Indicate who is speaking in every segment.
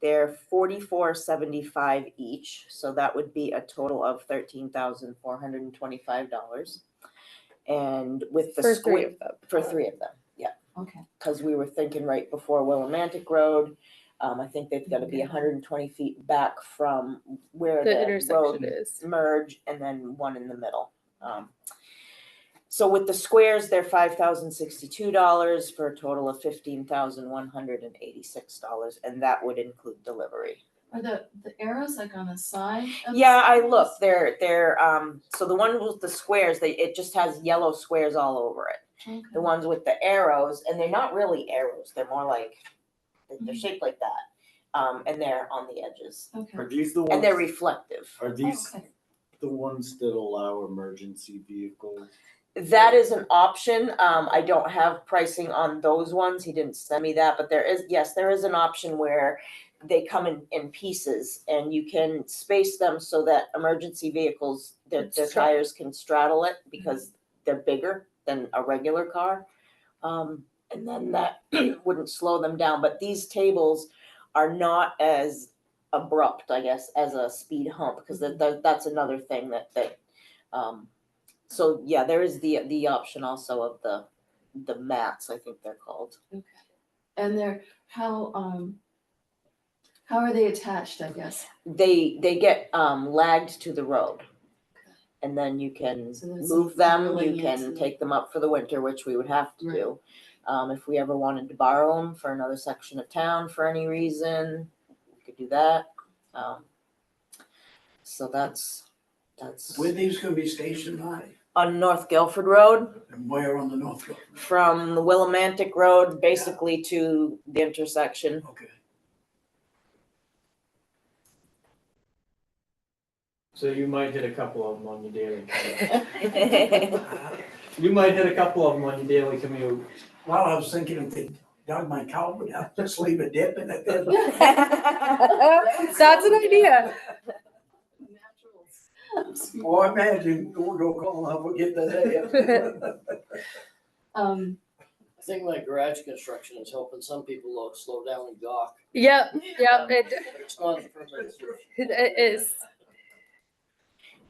Speaker 1: They're forty-four seventy-five each, so that would be a total of thirteen thousand four hundred and twenty-five dollars. And with the
Speaker 2: For three
Speaker 1: square,
Speaker 2: of them.
Speaker 1: for three of them, yeah,
Speaker 3: Okay,
Speaker 1: cause we were thinking right before Willimantic Road. Um, I think they've gotta be hundred and twenty feet back from where
Speaker 2: The
Speaker 1: the road
Speaker 2: intersection is.
Speaker 1: merge and then one in the middle. Um, So with the squares, they're five thousand sixty-two dollars for a total of fifteen thousand one hundred and eighty-six dollars, and that would include delivery.
Speaker 3: are the, the arrows like on the side of the
Speaker 1: Yeah, I
Speaker 3: squares?
Speaker 1: looked, they're, they're, um, so the one with the squares, they, it just has yellow squares all over it.
Speaker 3: Okay.
Speaker 1: The ones with the arrows, and they're not really arrows, they're more like,
Speaker 3: Mm-hmm.
Speaker 1: they're shaped like that. Um, and they're on the edges,
Speaker 3: Okay,
Speaker 4: Are these the ones?
Speaker 1: and they're reflective.
Speaker 4: Are
Speaker 3: Oh,
Speaker 4: these
Speaker 3: okay,
Speaker 4: the ones that allow emergency vehicles?
Speaker 1: That is an option. Um, I don't have pricing on those ones. He didn't send me that, but there is, yes, there is an option where they come in, in pieces and you can space them so that emergency vehicles, their, their
Speaker 2: Straddle.
Speaker 1: tires can straddle it because they're bigger than a regular car. Um, and then that wouldn't slow them down, but these tables are not as abrupt, I guess, as a speed hump, because that, that, that's another thing that, that, um, so yeah, there is the, the option also of the, the mats, I think they're called.
Speaker 3: okay. And they're, how, um, how are they attached, I guess?
Speaker 1: They, they get, um, lagged to the road. And then you can
Speaker 3: So there's
Speaker 1: move them,
Speaker 3: really
Speaker 1: you can
Speaker 3: into-
Speaker 1: take them up for the winter, which we would have to
Speaker 3: Right.
Speaker 1: do. Um, if we ever wanted to borrow them for another section of town for any reason, we could do that. Um, So that's, that's
Speaker 5: Where these gonna be stationed on,
Speaker 1: on North Guilford Road.
Speaker 5: and where on the north road?
Speaker 1: from the Willimantic Road basically to the intersection.
Speaker 5: Okay.
Speaker 6: So you might hit a couple of them on your daily commute.
Speaker 1: Well,
Speaker 5: Uh,
Speaker 6: You might hit a couple of them on your daily commute.
Speaker 5: Well, I was thinking if they dug my culvert out, just leave a dip in it. then-
Speaker 2: That's an idea.
Speaker 3: Naturals.
Speaker 5: Or Oh, imagine, we'll go call, I forget the day.
Speaker 3: Um,
Speaker 7: I think my garage construction is helping some people lo- slow down and gawk.
Speaker 2: Yep, yep, it,
Speaker 7: It's not a permanent solution.
Speaker 2: it is.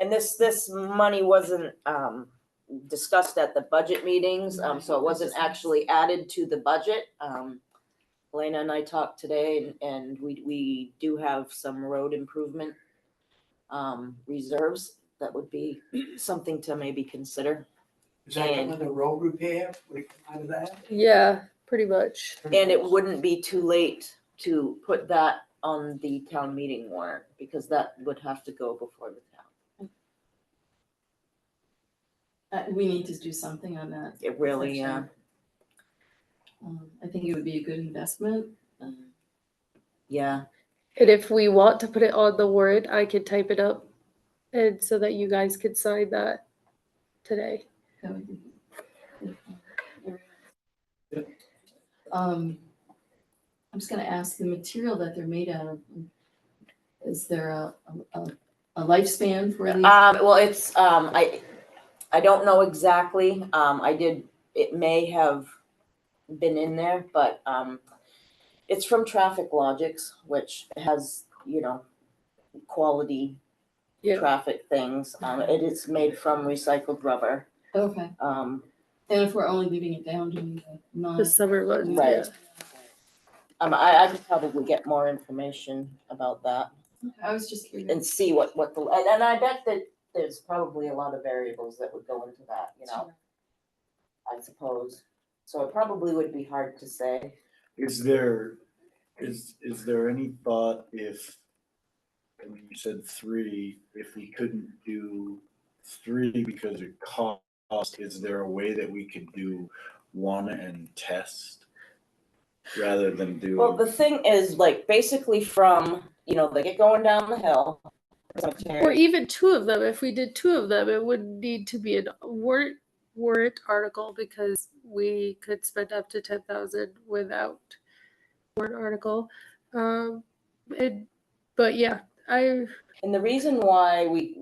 Speaker 1: And this, this money wasn't, um, discussed at the budget meetings, um, so it wasn't actually added to the budget. Um, Elena and I talked today and, and we, we do have some road improvement, um, reserves. That would be something to maybe consider.
Speaker 5: Is that another road repair, we come out of that?
Speaker 2: Yeah, pretty much.
Speaker 1: And it wouldn't be too late to put that on the town meeting warrant, because that would have to go before the town.
Speaker 3: uh, we need to do something on that.
Speaker 1: It really, uh,
Speaker 3: section. Um, I think it would be a good investment. Um,
Speaker 1: yeah,
Speaker 2: And if we want to put it on the word, I could type it up and so that you guys could sign that today.
Speaker 3: that would be- Um, I'm just gonna ask the material that they're made out of. Is there a, a, a lifespan for these?
Speaker 1: um, well, it's, um, I, I don't know exactly, um, I did, it may have been in there, but, um, it's from Traffic Logics, which has, you know, quality
Speaker 2: Yeah.
Speaker 1: traffic things, um, it is made from recycled rubber,
Speaker 3: Okay,
Speaker 1: um,
Speaker 3: and if we're only leaving it down to the non.
Speaker 2: The summer months.
Speaker 1: Right.
Speaker 2: yeah.
Speaker 1: um, I, I could probably get more information about that.
Speaker 3: I was just curious.
Speaker 1: and see what, what the, and, and I bet that there's probably a lot of variables that would go into that, you know, I suppose. So it probably would be hard to say.
Speaker 4: Is there, is, is there any thought if, I mean, you said three, if we couldn't do three because it cost, is there a way that we could do one and test? Rather than do.
Speaker 1: Well, the thing is, like, basically from, you know, they get going down the hill.
Speaker 2: Or even two of them. If we did two of them, it would need to be a warrant, warrant article because we could spend up to ten thousand without warrant article. Um, and, but yeah, I,
Speaker 1: And the reason why we,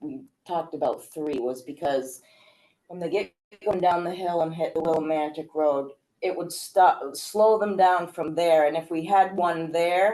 Speaker 1: we talked about three was because when they get going down the hill and hit the Willimantic Road, it would stop, slow them down from there, and if we had one there,